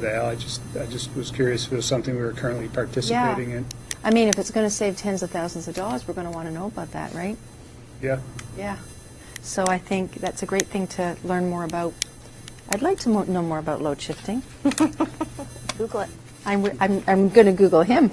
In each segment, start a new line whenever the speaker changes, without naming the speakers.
Val, I just, I just was curious if it was something we were currently participating in.
I mean, if it's going to save tens of thousands of dollars, we're going to want to know about that, right?
Yeah,
Yeah. So I think that's a great thing to learn more about. I'd like to mo- know more about load shifting.
Google it.
I'm, I'm, I'm going to Google him.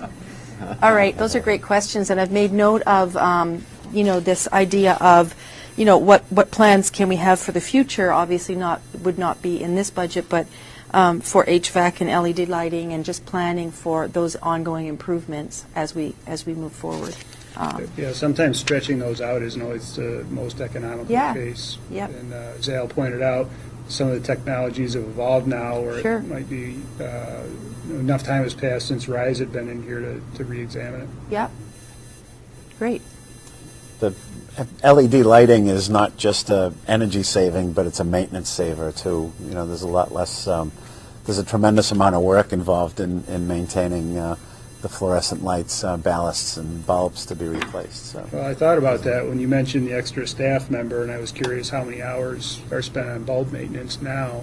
All right, those are great questions, and I've made note of, um, you know, this idea of, you know, what, what plans can we have for the future? Obviously not, would not be in this budget, but um, for HVAC and LED lighting and just planning for those ongoing improvements as we, as we move forward. Um,
yeah, sometimes stretching those out isn't always the most economical
Yeah.
case.
Yep.
And uh, as Al pointed out, some of the technologies have evolved now, or
Sure.
it might be, uh, enough time has passed since RISE had been in here to, to reexamine it.
Yep. Great.
The LED lighting is not just a energy saving, but it's a maintenance saver too. You know, there's a lot less. Um, there's a tremendous amount of work involved in, in maintaining uh, the fluorescent lights, uh, ballasts, and bulbs to be replaced. So.
Well, I thought about that when you mentioned the extra staff member, and I was curious how many hours are spent on bulb maintenance now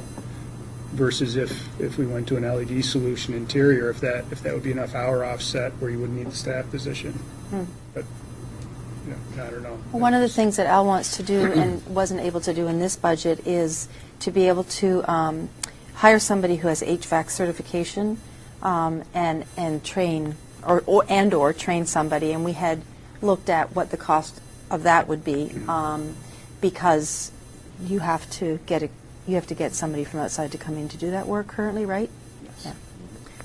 versus if, if we went to an LED solution interior, if that, if that would be enough hour offset where you wouldn't need the staff position. But, you know, I don't know.
Hmm. Well, one of the things that Al wants to do and wasn't able to do in this budget is to be able to um, hire somebody who has HVAC certification um, and, and train, or, or- and or train somebody. And we had looked at what the cost of that would be um, because you have to get, a you have to get somebody from outside to come in to do that work currently, right? Yes.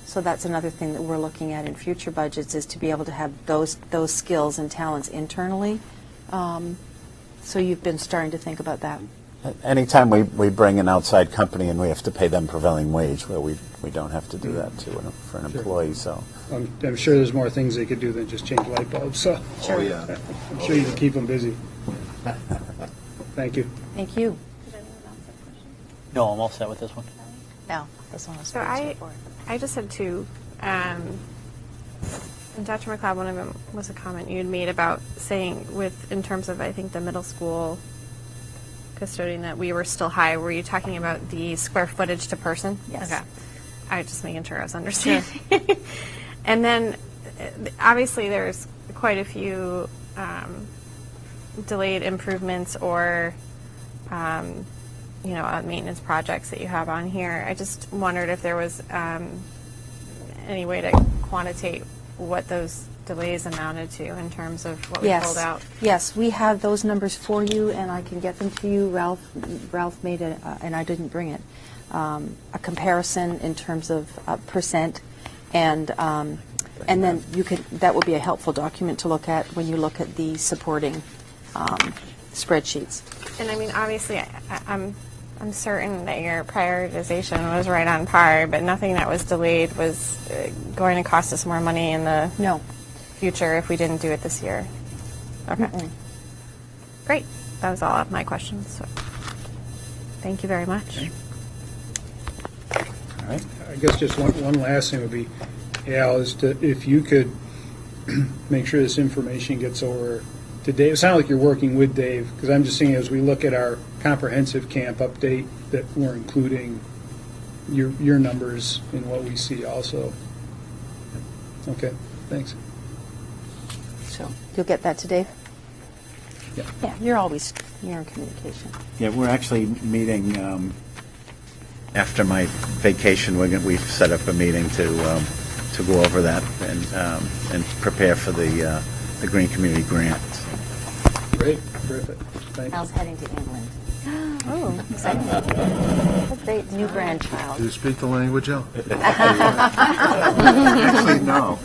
So that's another thing that we're looking at in future budgets is to be able to have those, those skills and talents internally. Um, So you've been starting to think about that.
Anytime we, we bring an outside company and we have to pay them prevailing wage, well, we, we don't have to do that to an, for an employee. So
I'm, I'm sure there's more things they could do than just change light bulbs, so.
Sure. Oh,
yeah.
I'm sure you can keep them busy. Thank you.
Thank you.
Does anyone else have questions?
No, I'm all set with this one.
Al, this one was
So
pretty
I,
straightforward.
I just had two. Um, and Dr. McLeod, one of them was a comment you had made about saying with, in terms of, I think, the middle school custodian that we were still high. Were you talking about the square footage to person?
Yes.
Okay. I was just making sure I was understanding. and then, uh, obviously, there's quite a few um, delayed improvements or um, you know, uh, maintenance projects that you have on here. I just wondered if there was um, any way to quantitate what those delays amounted to in terms of what we pulled out.
Yes, yes, we have those numbers for you, and I can get them to you. Ralph, Ralph made a, uh, and I didn't bring it, um, a comparison in terms of uh, percent, and, um, and then you could, that will be a helpful document to look at when you look at the supporting um, spreadsheets.
And I mean, obviously, I, I- I'm I'm certain that your prioritization was right on par, but nothing that was delayed was uh, going to cost us more money in the
No.
future if we didn't do it this year. Okay. Great. That was all of my questions. So. Thank you very much.
I guess just one, one last thing would be, Al, is to, if you could make sure this information gets over to Dave. It sounds like you're working with Dave, because I'm just saying, as we look at our comprehensive camp update, that we're including your, your numbers in what we see also. Okay, thanks.
So you'll get that to Dave?
Yeah.
Yeah, you're always, you're in communication.
yeah, we're actually meeting um, after my vacation. We're gonna, we've set up a meeting to um, to go over that and um, and prepare for the uh, the green community grant.
Great, terrific. Thank you.
Al's heading to England.
Oh,
What date? New grandchild.
Do you speak the language, Al?
Actually, no.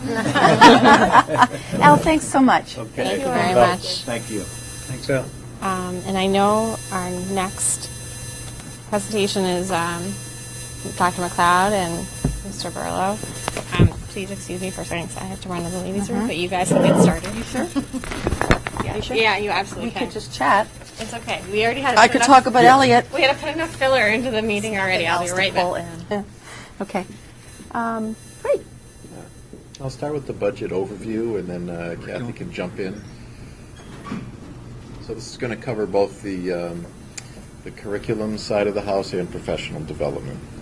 Al, thanhanks so much.
Okay.
Thank you very much.
Thank you.
Thanks, Al.
Um, and I know our next presentation is um, Dr. McLeod and Mr. Burlow. Um, please excuse me for a second 'cause I have to run to the ladies'
Uh-huh.
room, but you guys can get started. You sure? Yeah, you, yeah, you absolutely
We
can.
could just chat.
it's okay. We already had.
I
put
could
enough-
talk about Elliot.
We had to put enough filler into the meeting already. I'll be right back.
Okay. Um, Great.
I'll start with the budget overview, and then uh, Kathy can jump in. So this is going to cover both the, um, the curriculum side of the house and professional development.